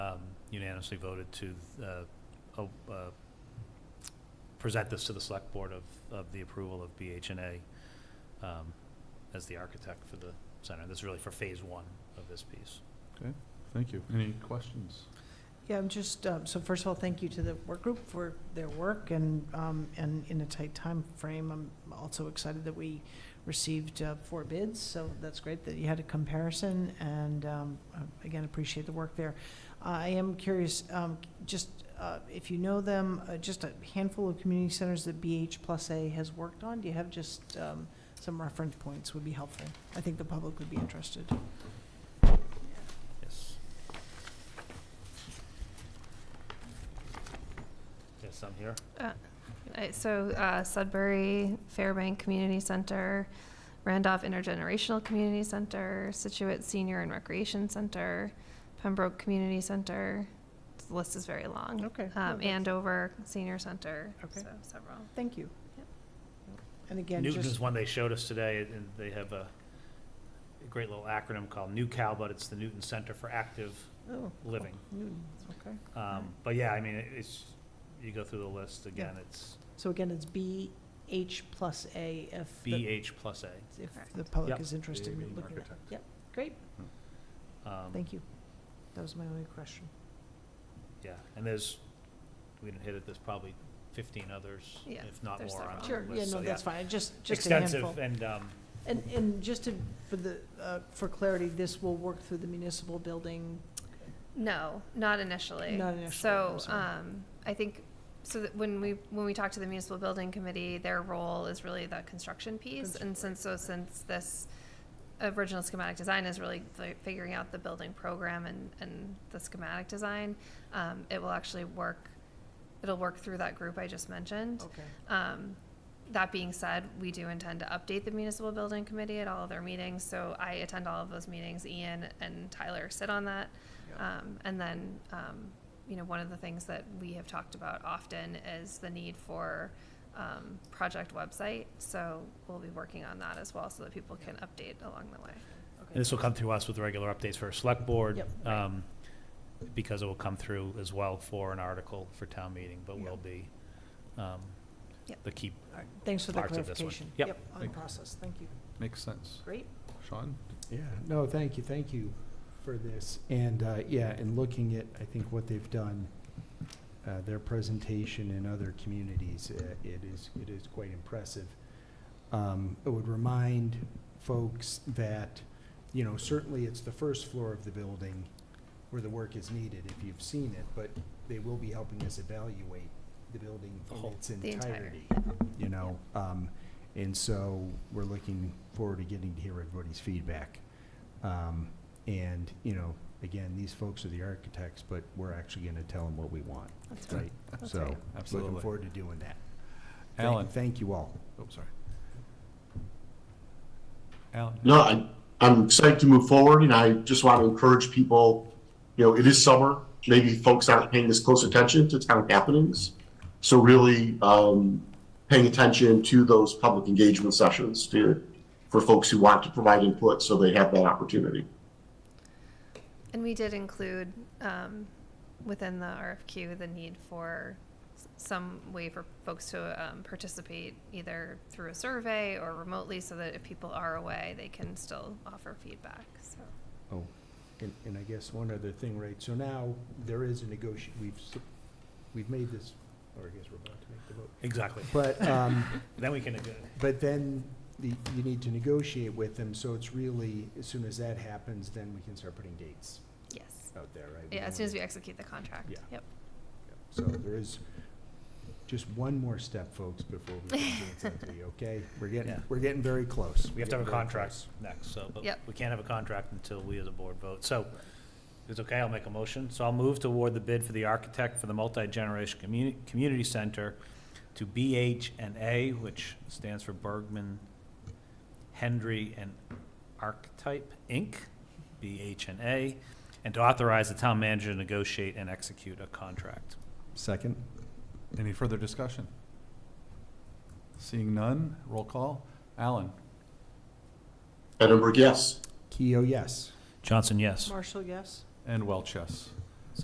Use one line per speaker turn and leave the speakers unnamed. um, unanimously voted to uh, oh, uh, present this to the select board of, of the approval of BHNA um, as the architect for the center. This is really for phase one of this piece.
Thank you. Any questions?
Yeah, I'm just, um, so first of all, thank you to the work group for their work and, um, and in a tight time frame. I'm also excited that we received uh, four bids, so that's great that you had a comparison and, um, uh, again, appreciate the work there. I am curious, um, just, uh, if you know them, uh, just a handful of community centers that BH Plus A has worked on, do you have just, um, some reference points would be helpful? I think the public would be interested.
Yes. Yes, I'm here.
Uh, So uh, Sudbury, Fairbank Community Center, Randolph Intergenerational Community Center, Situate Senior and Recreation Center, Pembroke Community Center. The list is very long.
Okay.
Um,
No, that's-
Andover Senior Center,
Okay.
so several.
Thank you.
Yep.
And again,
Newton is
just,
one they showed us today, and they have a a great little acronym called NewCal, but it's the Newton Center for Active
oh,
Living.
Newton, okay.
Um, But yeah, I mean, it- it's, you go through the list, again, it's
So again, it's BH plus A if the,
BH plus A.
if
Correct.
the public
Yep.
is interested
Being
in looking at.
architect.
Yep, great,
Um,
thank you. That was my only question.
Yeah, and there's, we didn't hit it, there's probably 15 others,
Yeah,
if not
there's
more on
several.
the list.
Sure, yeah,
so
no, that's fine, just, just a handful.
Extensive, and, um,
And, and just to, for the, uh, for clarity, this will work through the municipal building.
No, not initially.
Not initially,
So,
I'm sorry.
um, I think, so that when we, when we talk to the municipal building committee, their role is really the construction piece. And since, so since this original schematic design is really fi- figuring out the building program and, and the schematic design, um, it will actually work, it'll work through that group I just mentioned.
Okay.
Um, that being said, we do intend to update the municipal building committee at all of their meetings, so I attend all of those meetings, Ian and Tyler sit on that. Um, and then, um, you know, one of the things that we have talked about often is the need for, um, project website, so we'll be working on that as well, so that people can update along the way.
and this will come through us with regular updates for our select board.
Yep.
um, Because it will come through as well for an article for town meeting, but
Yeah.
will be um,
Yep.
the key
All right, Thanks for the
Parts of this one.
clarification.
Yep.
On
Thank you.
process, thank you.
Makes sense.
Great,
Sean?
Yeah, no, thank you, thank you for this. And, uh, yeah, and looking at, I think, what they've done, uh, their presentation in other communities, uh, it is, it is quite impressive. Um, It would remind folks that, you know, certainly it's the first floor of the building where the work is needed, if you've seen it, but they will be helping us evaluate the building
The
in
whole-
its
The entire-
entirety, you know? Um, And so we're looking forward to getting to hear everybody's feedback. Um, And, you know, again, these folks are the architects, but we're actually going to tell them what we want,
That's
right?
That's
So,
right.
Absolutely.
looking forward to doing that. Thank-
Alan?
Thank you all.
Oh, sorry. Alan?
No, I- I'm excited to move forward, and I just want to encourage people, you know, it is summer. Maybe folks aren't paying this close attention to town happenings. So really, um, paying attention to those public engagement sessions to, for folks who want to provide input, so they have that opportunity.
And we did include, um, within the RFQ, the need for s- some way for folks to, um, participate either through a survey or remotely, so that if people are away, they can still offer feedback, so.
Oh, and, and I guess one other thing, right, so now there is a negotiation, we've, s- we've made this, or I guess we're about to make the vote.
Exactly.
But, um,
Then we can, uh,
but then the, you need to negotiate with them, so it's really, as soon as that happens, then we can start putting dates
Yes.
out there, right?
Yeah, as soon as we
don't
execute the contract.
Yeah.
Yep.
wanna- So there is just one more step, folks, before we can dance out to you, okay? We're getting,
Yeah.
we're getting very close.
we have to have a
We're getting very
contract
close.
next, so, but
Yep.
we can't have a contract until we as a board vote. So, if it's okay, I'll make a motion. So I'll move to award the bid for the architect for the multi-generation community, community center to BH and A, which stands for Bergman, Hendry and Archetype, Inc., BH and A, and to authorize the town manager to negotiate and execute a contract.
Second?
Any further discussion? Seeing none, roll call. Alan?
Edinburgh, yes.
Keo, yes.
Johnson, yes.
Marshall, yes?
And Welch, yes.